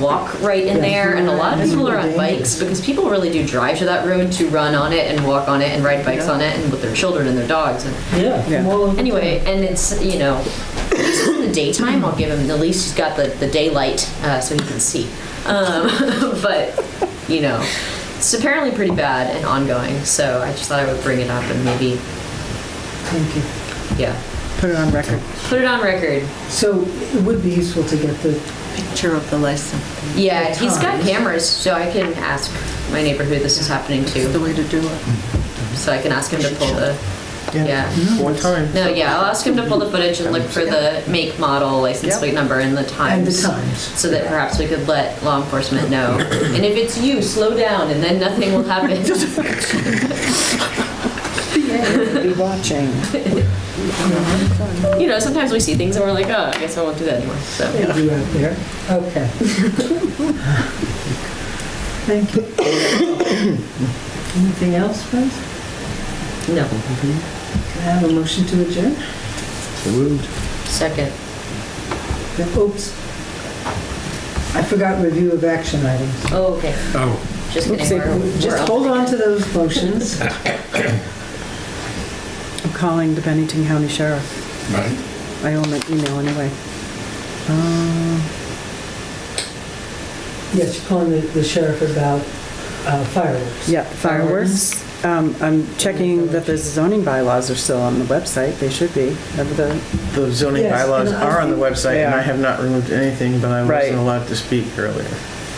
walk right in there, and a lot of people are on bikes because people really do drive to that road to run on it and walk on it and ride bikes on it and with their children and their dogs. And Yeah. Yeah. anyway, and it's you know, at least in the daytime, I'll give him. At least he's got the the daylight uh, so he can see. Um, but you know, it's apparently pretty bad and ongoing. So I just thought I would bring it up and maybe Thank you. yeah, Put it on record. put it on record. So it would be useful to get the, Picture of the license, Yeah, he's got times. cameras, so I can ask my neighbor who this is happening is the to. way to do it. So I can ask him to pull the. Yeah. One time. No, yeah, I'll ask him to pull the footage and look for the make, model, license Yep. plate number, and the and the times. times. So that perhaps we could let law enforcement know. And if it's you, slow down, and then nothing will happen. Be watching. You know, sometimes we see things and we're like, oh, I guess I won't do that anymore, so. Thank you out there. Okay. Thank you. Anything else, friends? No. Can I have a motion to adjourn? Second. Oops. I forgot review of action items. Oh, okay. Oh, Just kidding. Oopsie. we're- we're Just up. hold on to those motions. I'm calling the Bennington County Sheriff. right. I owe him an email anyway. Uh, Yes, you're calling the the sheriff about uh, fireworks. Yeah, fireworks. Um, I'm checking that the zoning bylaws are still on the website. They should be. Remember the- The zoning Yes, bylaws and I are on the think- website, and Yeah. I have not removed anything, but I Right. wasn't allowed to speak earlier.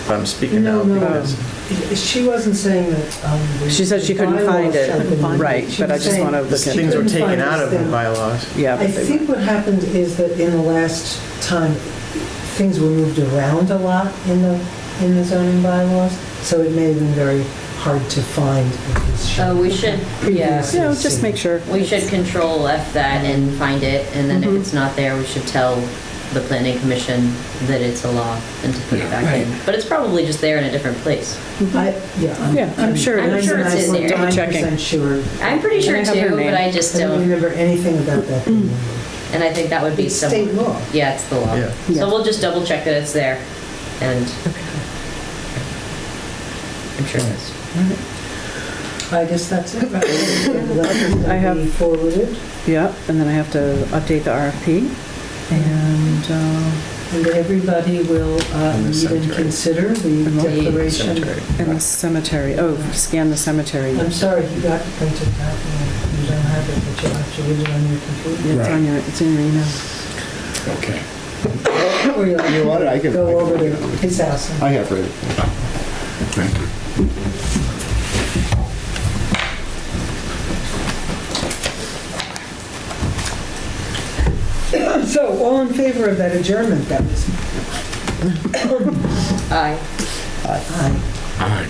But I'm speaking No, now no. because She wasn't saying that. um, the- She said she couldn't the find it. bylaws had been- Right, She but I was just saying- want to look at, things were couldn't find taken this out of the thing. bylaws. yeah. I but they- think what happened is that in the last time, things were moved around a lot in the, in the zoning bylaws, so it may have been very hard to find. what was shown. Oh, we should, yeah. Previous. You know, just make sure. We should control F that and find it, and then if Mm-hmm. it's not there, we should tell the planning commission that it's a law and to put it back in. But it's probably just there in a different place. I- Yeah, I'm- Yeah, I'm sure it I'm is. sure it's in there. 99% sure. I'm pretty Can I sure have her too, name? but I just I don't don't, remember anything about that. being in and I think that would there. be It's some. state law. Yeah, it's the law. Yeah. Yeah. So we'll just double check that it's there, and I'm sure it is. I guess that's it. right? That I have- will be Forwarded, Yep, and then I have to update the RFP. And uh, and everybody will uh, And read the and cemetery. consider the And the declaration. Cemetery. and the cemetery, oh, scan the cemetery. I'm sorry, you got it printed out, and you don't have it, but you'll have to read it on your computer. It's on your, it's in your email. Okay. Or you'll You know what, I can- I Go can- over to his house. and- I have read it. Thank you. So, all in favor of that adjournment, that was? Aye. uh, Aye. All right.